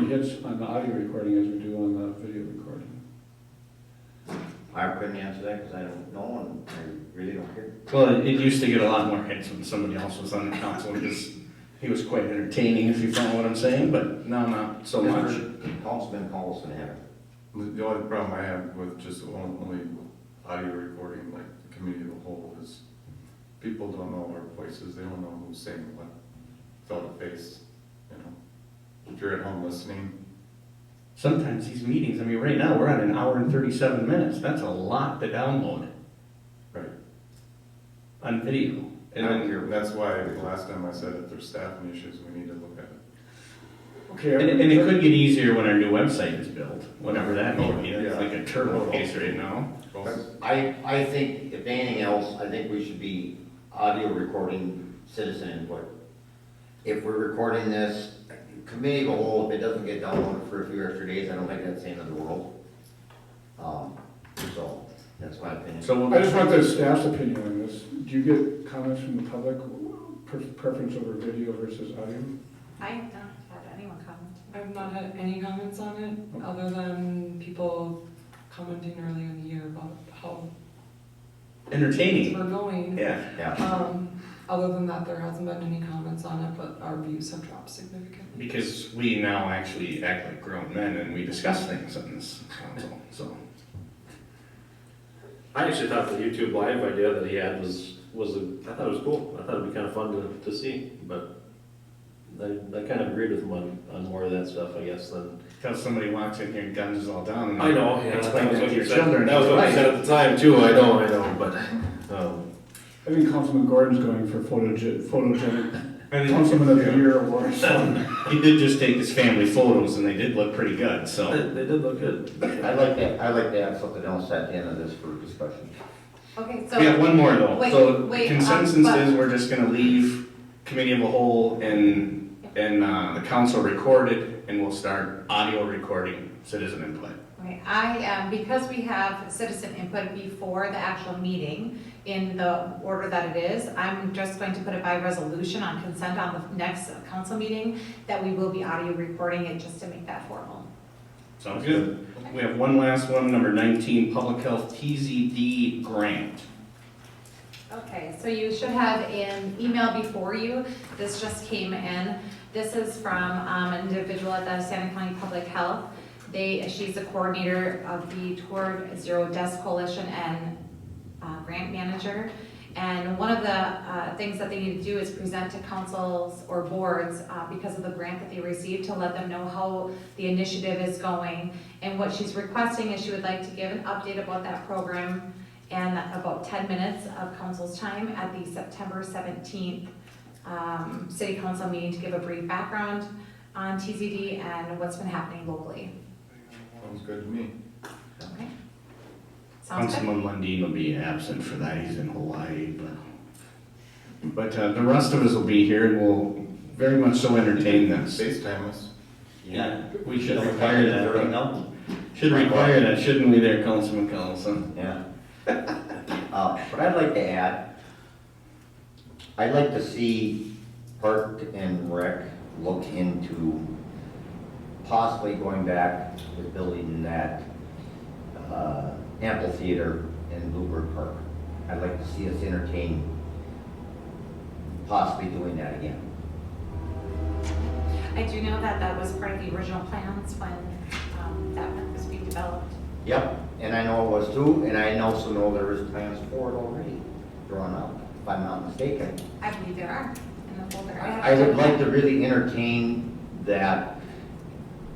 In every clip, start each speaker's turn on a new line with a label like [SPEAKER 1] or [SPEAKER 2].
[SPEAKER 1] hits on the audio recording as we do on the video recording.
[SPEAKER 2] I couldn't answer that because I don't know and I really don't care.
[SPEAKER 3] Well, it used to get a lot more hits when somebody else was on the council because he was quite entertaining, if you follow what I'm saying, but now not so much.
[SPEAKER 2] Councilman Paulson had it.
[SPEAKER 4] The only problem I have with just on- only audio recording, like the community of the whole, is people don't know our voices, they don't know who's saying what, felt a face, you know? If you're at home listening,
[SPEAKER 3] Sometimes these meetings, I mean, right now, we're at an hour and thirty-seven minutes, that's a lot to download
[SPEAKER 4] right?
[SPEAKER 3] on video.
[SPEAKER 4] I
[SPEAKER 3] And
[SPEAKER 4] don't
[SPEAKER 3] then,
[SPEAKER 4] care, that's why the last time I said if there's staffing issues, we need to look at it.
[SPEAKER 1] Okay.
[SPEAKER 3] and and it could get easier when our new website is built, whatever that may be,
[SPEAKER 4] Yeah.
[SPEAKER 3] that's like a turbo case right now.
[SPEAKER 5] Oh.
[SPEAKER 4] Both-
[SPEAKER 2] I, I think if anything else, I think we should be audio recording citizen input. If we're recording this, committee of the whole, if it doesn't get downloaded for a few extra days, I don't think that's the end of the world. Um, so, that's my opinion.
[SPEAKER 3] So
[SPEAKER 1] I just
[SPEAKER 3] we'll,
[SPEAKER 1] want the staff's opinion on this. Do you get comments from the public, pre- preference over video versus audio?
[SPEAKER 6] I don't have anyone comment.
[SPEAKER 7] I've not had any comments on it, other than people commenting early in the year about how things
[SPEAKER 3] entertaining,
[SPEAKER 7] we're going.
[SPEAKER 3] yeah.
[SPEAKER 2] Yeah,
[SPEAKER 7] Um, other than that, there hasn't been any comments on it, but our views have dropped significantly.
[SPEAKER 3] Because we now actually act like grown men and we discuss things on this council, so.
[SPEAKER 5] I actually thought the YouTube live idea that he had was, was, a- I thought it was cool. I thought it'd be kind of fun to, to see, but I, I kind of agreed with him on, on more of that stuff, I guess, than.
[SPEAKER 3] Because somebody walks in here and guns us all down. and
[SPEAKER 5] I know, yeah,
[SPEAKER 3] Explain
[SPEAKER 5] that was
[SPEAKER 3] that
[SPEAKER 5] what
[SPEAKER 3] to
[SPEAKER 5] you
[SPEAKER 3] your
[SPEAKER 5] said,
[SPEAKER 3] children.
[SPEAKER 5] that was what you
[SPEAKER 3] Right.
[SPEAKER 5] said at the time too, I know, I know, but, um,
[SPEAKER 1] I think Councilman Gordon's going for photog- photogenic,
[SPEAKER 3] And he-
[SPEAKER 1] Councilman of the Year award.
[SPEAKER 3] He did just take his family photos and they did look pretty good, so.
[SPEAKER 5] they did look good.
[SPEAKER 2] I'd like to, I'd like to have something else at the end of this for discussion.
[SPEAKER 6] Okay, so.
[SPEAKER 3] We have one more though.
[SPEAKER 6] Wait,
[SPEAKER 3] So
[SPEAKER 6] wait, um,
[SPEAKER 3] consensus
[SPEAKER 6] but-
[SPEAKER 3] is we're just gonna leave committee of the whole and, and, uh, the council recorded and we'll start audio recording citizen input.
[SPEAKER 6] Okay, I, um, because we have citizen input before the actual meeting in the order that it is, I'm just going to put it by resolution on consent on the next council meeting that we will be audio recording it just to make that formal.
[SPEAKER 3] Sounds good. We have one last one, number nineteen, public health TZD grant.
[SPEAKER 6] Okay, so you should have an email before you. This just came in. This is from um, an individual at the Santa County Public Health. They, she's the coordinator of the Toward Zero Deaths Coalition and uh, grant manager. And one of the uh, things that they need to do is present to councils or boards uh, because of the grant that they received to let them know how the initiative is going. And what she's requesting is she would like to give an update about that program and about 10 minutes of council's time at the September 17th um, city council meeting to give a brief background on TZD and what's been happening locally.
[SPEAKER 4] Sounds good to me.
[SPEAKER 6] Okay? Sounds good?
[SPEAKER 3] Councilman Lundin will be absent for that, he's in Hawaii, but, but uh, the rest of us will be here and will very much so entertain this.
[SPEAKER 4] FaceTime us.
[SPEAKER 3] Yeah, we should require that, right?
[SPEAKER 2] No?
[SPEAKER 3] Should require that, shouldn't we there, Councilman Collison?
[SPEAKER 2] Yeah. Uh, What I'd like to add, I'd like to see Park and Rec look into possibly going back to building that uh, amphitheater in Bluebird Park. I'd like to see us entertain possibly doing that again.
[SPEAKER 6] I do know that that was part of the original plans when um, that park was being developed.
[SPEAKER 2] Yep, and I know it was too, and I also know there is plans for it already drawn up, if I'm not mistaken.
[SPEAKER 6] I believe there are in the folder. have
[SPEAKER 2] I would like to really entertain that,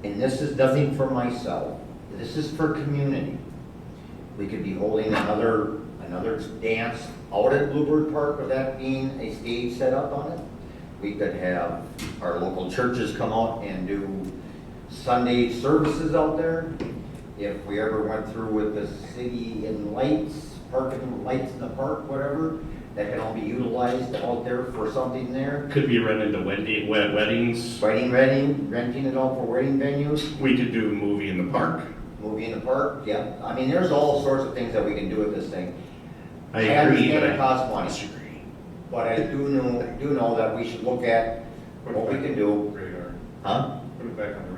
[SPEAKER 2] and this is nothing for myself, this is for community. We could be holding another, another dance out at Bluebird Park with that being a stage set up on it. We could have our local churches come out and do Sunday services out there. If we ever went through with the city and lights, parking lights in the park, whatever, that can all be utilized out there for something there.
[SPEAKER 3] Could be rented to wedding, wed- weddings,
[SPEAKER 2] Wedding, renting, renting it all for wedding venues,
[SPEAKER 3] we could do a movie in the park.
[SPEAKER 2] movie in the park, yeah. I mean, there's all sorts of things that we can do with this thing.
[SPEAKER 3] I agree,
[SPEAKER 2] understand
[SPEAKER 3] but
[SPEAKER 2] it
[SPEAKER 3] I
[SPEAKER 2] costs money,
[SPEAKER 3] disagree.
[SPEAKER 2] but I do know, do know that we should look at what we can do,
[SPEAKER 4] Radar.
[SPEAKER 2] huh?
[SPEAKER 4] Put it back on the